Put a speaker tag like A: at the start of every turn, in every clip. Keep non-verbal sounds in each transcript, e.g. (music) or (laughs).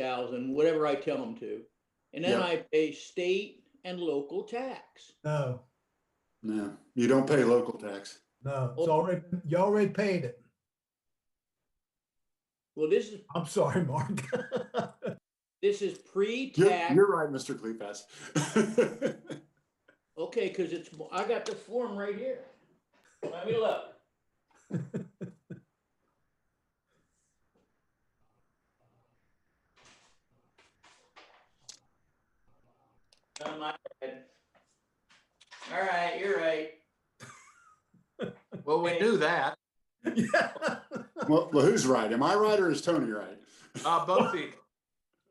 A: thousand, whatever I tell them to. And then
B: Yeah.
A: I pay state and local tax.
C: No,
B: No, you don't pay local tax.
C: no, it's already, you already paid it.
A: Well, this is,
C: I'm sorry, Mark. (laughs)
A: this is
B: You're,
A: pre-tax.
B: you're right, Mr. Cleefas.
A: Okay, because it's, I got the form right here. Let me (laughs) look. On my head. All right, you're right.
D: Well, we
A: Okay.
D: knew that.
C: Yeah.
B: (laughs) Well, well, who's right? Am I right or is Tony right?
D: Uh, both of you.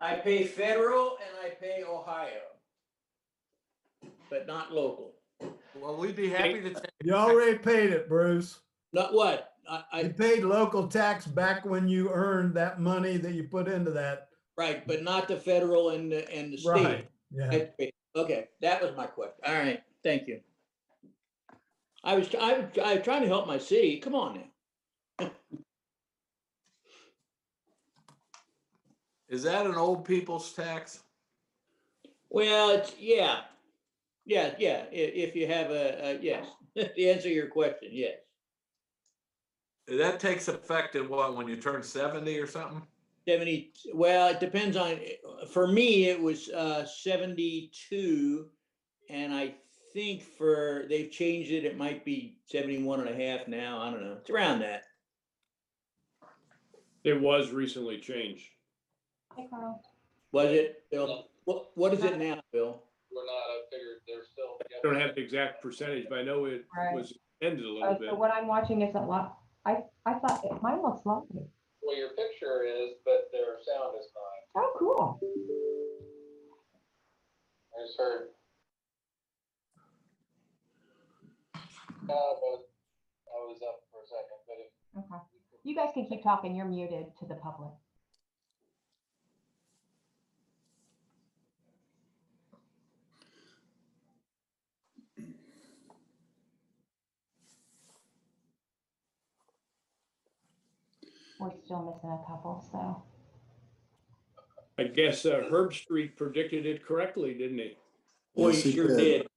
A: I pay federal and I pay Ohio. But not local.
D: Well, we'd be happy to take.
C: You already paid it, Bruce.
A: Not what? I,
C: You
A: I,
C: paid local tax back when you earned that money that you put into that.
A: right, but not the federal and the, and the state.
C: Right, yeah.
A: Okay, Okay, that was my question. All right, thank you. I was, I was, I was trying to help my city. Come on now.
D: Is that an old people's tax?
A: Well, it's, yeah. Yeah, yeah, i- if you have a, a, yes, (laughs) the answer to your question, yes.
D: That takes effect in what, when you turn seventy or something?
A: Seventy, well, it depends on, for me, it was uh seventy-two. And I think for, they've changed it, it might be 71 and a half now, I don't know, it's around that.
E: It was recently changed.
F: Hey Carl,
A: Was it, Bill?
G: No.
A: What, what is it now, Bill?
G: We're not, I figured they're still.
E: I don't have the exact percentage, but I know it
F: Right.
E: was ended a little
F: Oh,
E: bit.
F: so what I'm watching isn't live. I, I thought it- mine looks live.
G: Well, your picture is, but their sound is not.
F: Oh, cool.
G: I just heard. Uh, but I was up for a second, but if.
F: Okay. You guys can keep talking. You're muted to the public. We're still missing a couple, so.
E: I guess uh, Herb Street predicted it correctly, didn't he?
A: Boy,
B: Yes,
A: he
B: he
A: sure
B: did.
A: did.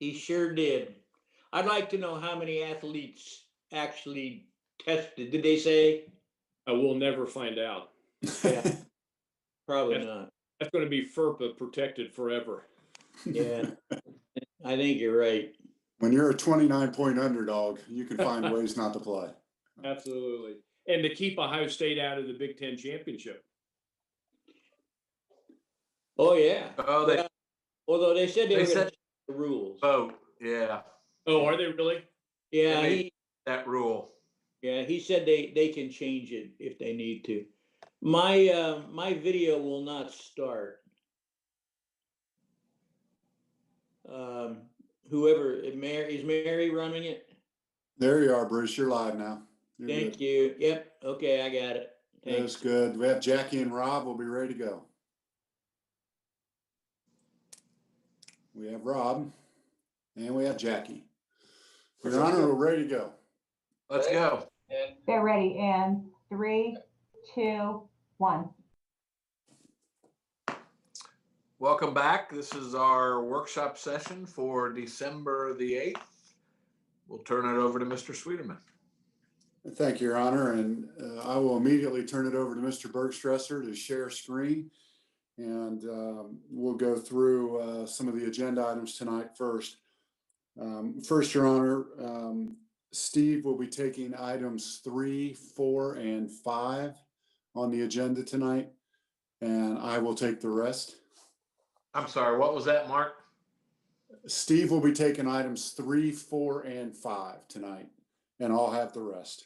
A: He sure did. I'd like to know how many athletes actually tested, did they say?
E: I will Uh, never find out.
A: Yeah, Probably
E: Yes.
A: not,
E: That's going to be FERPA protected forever.
A: yeah. I think you're right.
B: (laughs) When you're a 29 point underdog, you can
A: (laughs)
B: find ways not to play.
E: Absolutely. And to keep Ohio State out of the Big Ten championship.
A: Oh, yeah.
D: Oh, they
A: Although they said they
D: They
A: were gonna
D: said-
A: change the rules.
D: vote, yeah,
E: Oh, are they really?
A: Yeah,
D: they-
A: he,
D: that rule.
A: yeah, he said they, they can change it if they need to. My, uh, my video will not start. Um, whoever, Mary, is Mary running it?
B: There you are, Bruce. You're live now. You're
A: Thank
B: good.
A: you. Yep, okay, I got it.
B: That's
A: Thanks.
B: good. We have Jackie and Rob. We'll be ready to go. We have Rob and we have Jackie. Your Honor, we're ready to go.
D: Let's go.
G: And
F: They're ready in three, two, one.
D: Welcome back. This is our workshop session for December the eighth. We'll turn it over to Mr. Sweeterman.
B: Thank you, Your Honor, and uh, I will immediately turn it over to Mr. Bergstresser to share screen. And um, we'll go through uh, some of the agenda items tonight first. Um, First, Your Honor, um, Steve will be taking items three, four, and five on the agenda tonight, and I will take the rest.
D: I'm sorry, what was that, Mark?
B: Steve will be taking items three, four, and five tonight, and I'll have the rest.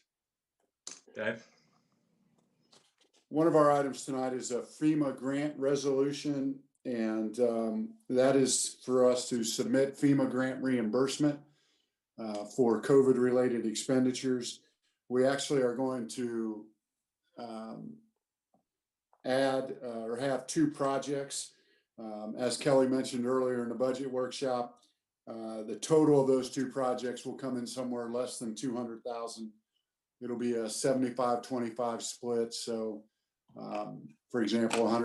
D: Okay,
B: One of our items tonight is a FEMA grant resolution, and um, that is for us to submit FEMA grant reimbursement uh, for COVID-related expenditures. We actually are going to um, add uh, or have two projects. Um, As Kelly mentioned earlier in the budget workshop, uh, the total of those two projects will come in somewhere less than 200,000 it'll be a 75-25 split, so um, for example, a hundred